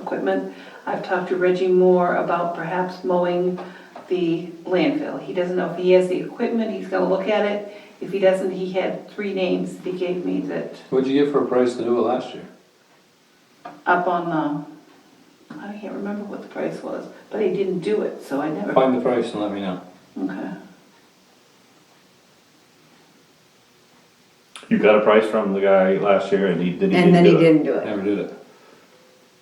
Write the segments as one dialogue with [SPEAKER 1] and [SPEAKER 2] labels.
[SPEAKER 1] equipment. I've talked to Reggie Moore about perhaps mowing the landfill. He doesn't know if he has the equipment, he's gonna look at it. If he doesn't, he had three names that he gave me that,
[SPEAKER 2] What'd you get for a price to do it last year?
[SPEAKER 1] up on, um, I can't remember what the price was, but he didn't do it, so I never,
[SPEAKER 2] Find the price and let me know.
[SPEAKER 1] okay.
[SPEAKER 3] You got a price from the guy last year and he didn't, he
[SPEAKER 4] And then he
[SPEAKER 3] didn't do it.
[SPEAKER 4] didn't do
[SPEAKER 2] Never
[SPEAKER 4] it.
[SPEAKER 2] did it.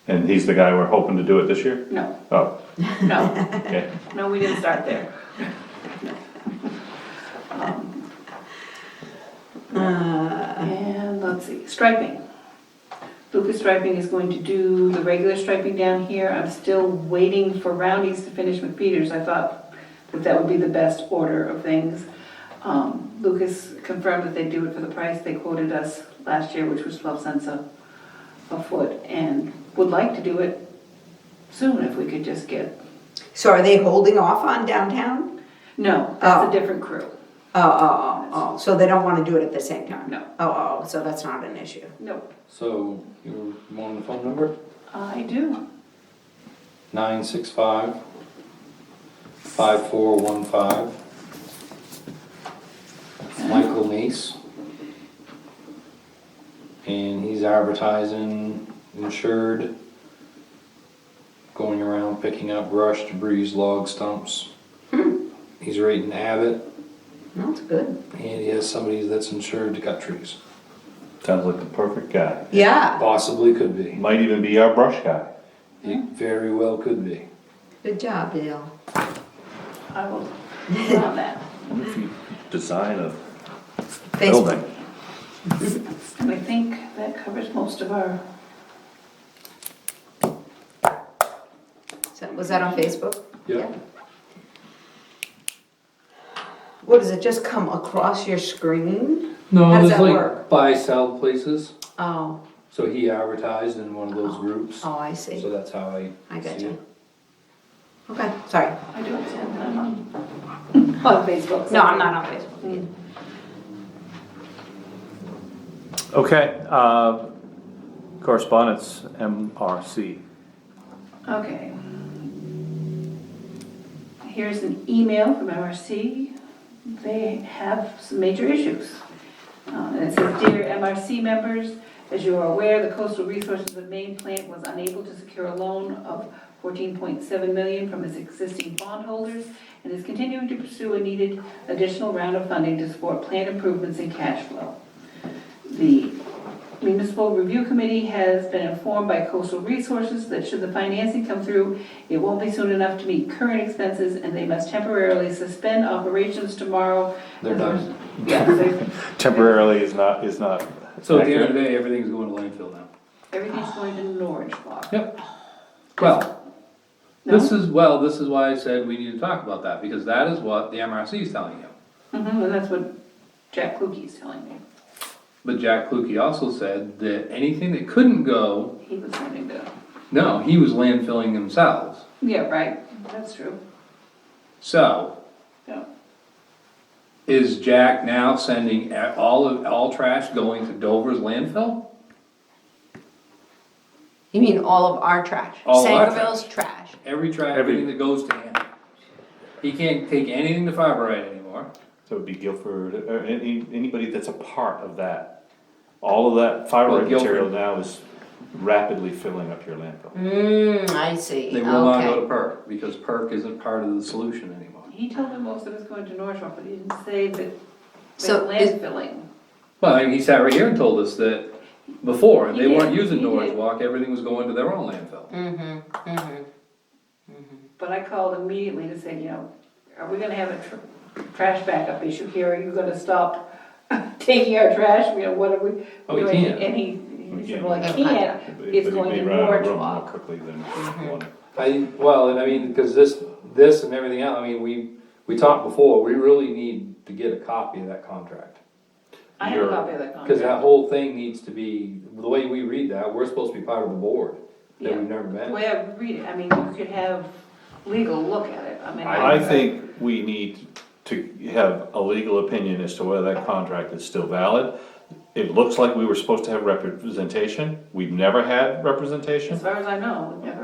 [SPEAKER 3] And he's the guy we're hoping to do it this year?
[SPEAKER 1] No,
[SPEAKER 3] Oh,
[SPEAKER 1] no.
[SPEAKER 3] okay.
[SPEAKER 1] No, we didn't start there. Um, uh, And let's see, striping. Lucas Striping is going to do the regular striping down here. I'm still waiting for Roundy's to finish McPeters. I thought that that would be the best order of things. Um, Lucas confirmed that they'd do it for the price they quoted us last year, which was twelve cents a, a foot, and would like to do it soon if we could just get
[SPEAKER 4] So are they holding off on downtown?
[SPEAKER 1] no, that's
[SPEAKER 4] Oh.
[SPEAKER 1] a different crew.
[SPEAKER 4] Oh, oh, oh, oh, so they don't wanna do it at the same time?
[SPEAKER 1] No.
[SPEAKER 4] Oh, oh, so that's not an issue.
[SPEAKER 1] Nope.
[SPEAKER 2] So you want the phone number?
[SPEAKER 1] I do.
[SPEAKER 2] Nine six five five four one five. Michael Nace. And he's advertising insured, going around picking up brush, debris, log stumps. He's rating Abbott,
[SPEAKER 4] That's good.
[SPEAKER 2] and he has somebody that's insured to cut trees.
[SPEAKER 3] Sounds like the perfect guy.
[SPEAKER 4] Yeah,
[SPEAKER 2] Possibly could be.
[SPEAKER 3] Might even be our brush guy.
[SPEAKER 2] It very well could be.
[SPEAKER 4] good job, Dale.
[SPEAKER 1] I will put on that.
[SPEAKER 3] Wonder if you design a
[SPEAKER 4] Facebook.
[SPEAKER 1] And I think that covers most of our,
[SPEAKER 4] So Was that on Facebook?
[SPEAKER 2] Yeah.
[SPEAKER 4] What, does it just come across your screen?
[SPEAKER 2] No,
[SPEAKER 4] How does
[SPEAKER 2] there's
[SPEAKER 4] that
[SPEAKER 2] like
[SPEAKER 4] work?
[SPEAKER 2] buy sell places.
[SPEAKER 4] Oh,
[SPEAKER 2] So he advertised in one of those groups.
[SPEAKER 4] oh, I
[SPEAKER 2] So
[SPEAKER 4] see.
[SPEAKER 2] that's how I.
[SPEAKER 4] I got
[SPEAKER 2] see
[SPEAKER 4] you.
[SPEAKER 2] it.
[SPEAKER 4] Okay, sorry.
[SPEAKER 1] I do understand that I'm on, on Facebook.
[SPEAKER 4] No, I'm not on Facebook.
[SPEAKER 1] Mm.
[SPEAKER 5] Okay, uh, correspondence, MRC.
[SPEAKER 1] Okay. Here's an email from MRC. They have some major issues. Uh, And it says, "Dear MRC members, as you are aware, the Coastal Resources of Maine plant was unable to secure a loan of 14.7 million from its existing bondholders and is continuing to pursue a needed additional round of funding to support plant improvements and cash flow. The Municipal Review Committee has been informed by Coastal Resources that should the financing come through, it won't be soon enough to meet current expenses, and they must temporarily suspend operations tomorrow.
[SPEAKER 2] They're done.
[SPEAKER 1] Yeah, they-
[SPEAKER 5] Temporarily is not, is not.
[SPEAKER 2] So at the end of the day, everything's going to landfill now.
[SPEAKER 1] everything's going to Norwich Block.
[SPEAKER 2] Yep. Well,
[SPEAKER 1] No?
[SPEAKER 2] this is, well, this is why I said we need to talk about that, because that is what the MRC is telling you.
[SPEAKER 1] hmm and that's what Jack Kluge's telling me.
[SPEAKER 2] But Jack Kluke also said that anything that couldn't go,
[SPEAKER 1] He was wanting to,
[SPEAKER 2] no, he was landfilling themselves.
[SPEAKER 1] yeah, right, that's true,
[SPEAKER 2] So
[SPEAKER 1] yeah.
[SPEAKER 2] is Jack now sending a- all of, all trash going to Dover's landfill?
[SPEAKER 4] You mean all of our trash?
[SPEAKER 2] All our
[SPEAKER 4] Sangerville's trash.
[SPEAKER 2] Every trash,
[SPEAKER 5] Every-
[SPEAKER 2] everything that goes to him. He can't take anything to Fiberite anymore.
[SPEAKER 3] So it'd be Guilford, or any, anybody that's a part of that. All of that fiber
[SPEAKER 2] Well,
[SPEAKER 3] material
[SPEAKER 2] Guilford.
[SPEAKER 3] now is rapidly filling up your landfill.
[SPEAKER 4] Mm, I see,
[SPEAKER 2] They will not go
[SPEAKER 4] okay.
[SPEAKER 2] to Perk, because Perk isn't part of the solution anymore.
[SPEAKER 1] He told me most of it's going to Norwich Block, but he didn't say that they
[SPEAKER 4] So is-
[SPEAKER 1] landfilling.
[SPEAKER 2] Well, I mean, he sat right here and told us that before,
[SPEAKER 1] He
[SPEAKER 2] they weren't
[SPEAKER 1] did,
[SPEAKER 2] using
[SPEAKER 1] he
[SPEAKER 2] Norwich
[SPEAKER 1] did. Mm.
[SPEAKER 2] Walk, everything was going to their own landfill.
[SPEAKER 4] Mm-hmm, mm-hmm.
[SPEAKER 1] But I called immediately to say, you know, are we gonna have a tr- trash backup issue here? Are you gonna stop taking our trash? You know, what are we?
[SPEAKER 2] Oh, we
[SPEAKER 1] doing?
[SPEAKER 2] can't.
[SPEAKER 1] And he,
[SPEAKER 3] We
[SPEAKER 1] he said,
[SPEAKER 3] can't.
[SPEAKER 1] well, I
[SPEAKER 4] Okay.
[SPEAKER 1] can't.
[SPEAKER 3] But
[SPEAKER 1] It's
[SPEAKER 3] you
[SPEAKER 1] going
[SPEAKER 3] may
[SPEAKER 1] to Mm-hmm.
[SPEAKER 3] run out of
[SPEAKER 1] Norwich
[SPEAKER 3] room more
[SPEAKER 1] Block.
[SPEAKER 3] Quickly than one.
[SPEAKER 2] I, well, and I mean, because this, this and everything else, I mean, we, we talked before, we really need to get a copy of that contract.
[SPEAKER 1] I have a
[SPEAKER 3] You're-
[SPEAKER 1] copy of that
[SPEAKER 2] Because that
[SPEAKER 1] contract.
[SPEAKER 2] whole thing needs to be, the way we read that, we're supposed to be part of the board, that
[SPEAKER 1] Yeah.
[SPEAKER 2] we've never
[SPEAKER 1] The
[SPEAKER 2] been.
[SPEAKER 1] way I read it, I mean, you could have legal look at it. I mean.
[SPEAKER 3] I think we need to have a legal opinion as to whether that contract is still valid. It looks like we were supposed to have representation, we've never had representation.
[SPEAKER 1] As far as I know, we've never